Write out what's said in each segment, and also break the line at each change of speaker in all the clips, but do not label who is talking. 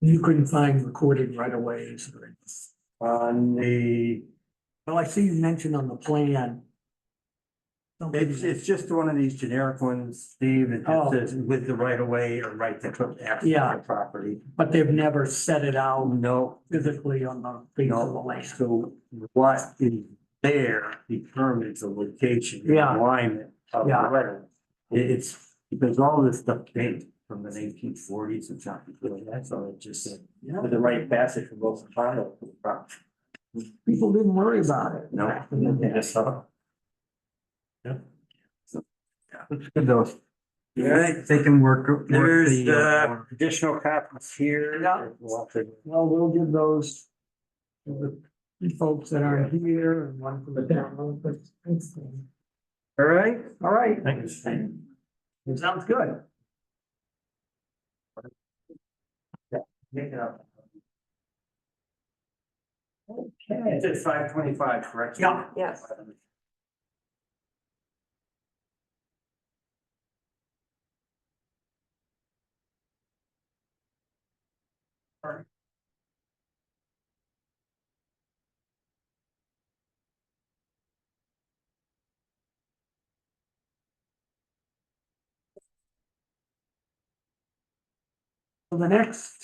You couldn't find recorded right away
on the,
Well, I see you mentioned on the plan.
it's, it's just one of these generic ones, Steve, it
Oh.
just says with the right of way or right to put access
Yeah.
to property.
But they've never set it
Oh,
out
no,
physically on the face of the
no,
land.
so what is there determines the location, the
Yeah.
alignment of the
Yeah.
right of way. It- It's, because all this stuff dates from the nineteen forties and something, really, that's all it just said.
Yeah.
With the right passage from both the final to the property.
People didn't worry about it.
No.
back in the day.
Yep. It's good though.
Yeah, they can work. work
There's
uh,
the additional copies here.
Yeah.
Lots of-
Well, we'll give those to the folks that aren't here and one for the town.
All right.
All right.
Thanks.
Sounds good.
It's
Okay.
at five twenty-five, correct?
Yeah.
Yes.
So the next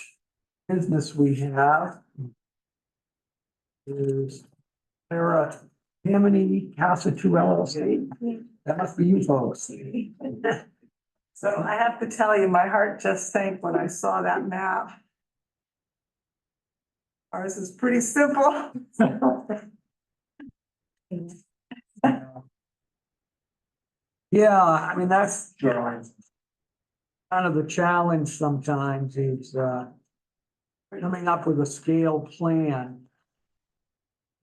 business we have is Sarah Tammany Casa Two LLC. That must be you folks.
So I have to tell you, my heart just sank when I saw that map. Ours is pretty simple.
Yeah, I mean, that's
Drawings.
kind of the challenge sometimes is, uh, coming up with a scale plan.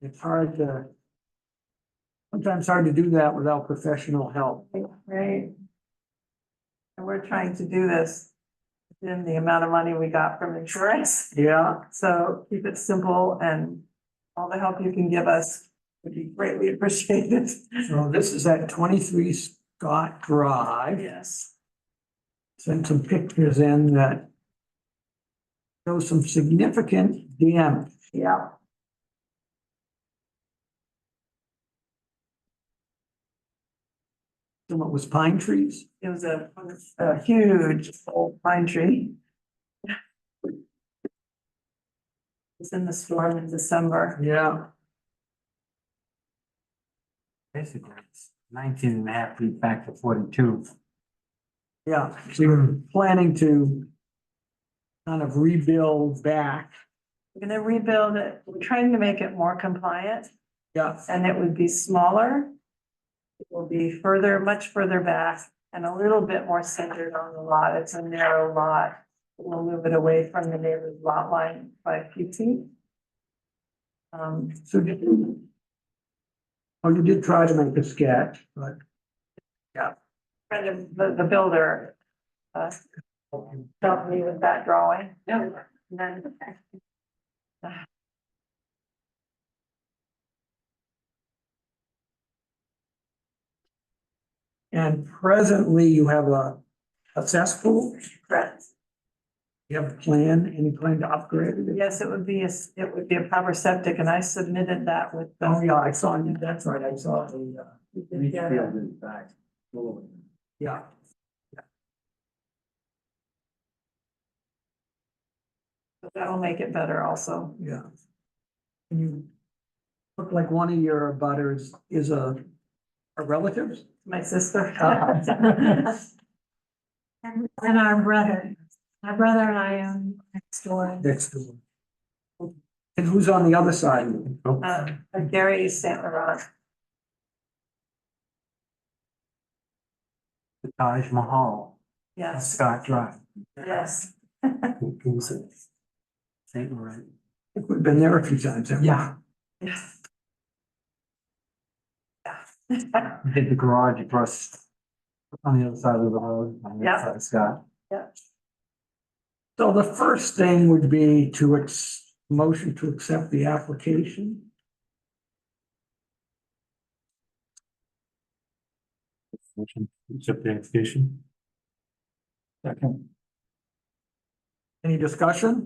It's hard to, sometimes hard to do that without professional help.
Right? And we're trying to do this in the amount of money we got from insurance.
Yeah,
So keep it simple and all the help you can give us would be greatly appreciated.
so this is at twenty-three Scott Drive.
Yes.
Sent some pictures in that show some significant damage.
Yeah.
Some of it was pine trees.
It was a, a huge old pine tree. It's in the storm in December.
Yeah.
Basically, it's nineteen and a half feet back to forty-two.
Yeah, so you're planning to kind of rebuild back.
We're gonna rebuild it. We're trying to make it more compliant
Yeah.
and it would be smaller. It will be further, much further back and a little bit more centered on the lot. It's a narrow lot. We'll move it away from the neighbor's lot line by a few feet. Um,
So did you? Oh, you did try to make a sketch, but.
friend of the, the builder, uh, helped me with that drawing. Yeah. And then.
And presently you have a, a cesspool,
Correct.
you have a plan, any plan to upgrade it?
Yes, it would be, a s- it would be a proper septic, and I submitted that with. the-
Oh, yeah, I saw, you. that's right, I saw the, uh,
You did
Each
get it.
field is back. Cool.
yeah.
So That'll make it better also.
Yeah. And you look like one of your butters is a, a relative?
My sister.
Uh-huh.
And, and our brother, my brother and I own next door.
Next door. And who's on the other side?
Uh, Gary Saint Laurent.
The Taj Mahal,
Yes,
Scott Drive,
yes.
St. Laurent.
I think We've been there a few times. haven't we?
Yeah.
yes.
Did the garage across on the other side of the road, on the
Yeah.
other side of Scott.
So the first thing would be to ex, motion to accept the application.
Accept the application. Second.
Any discussion?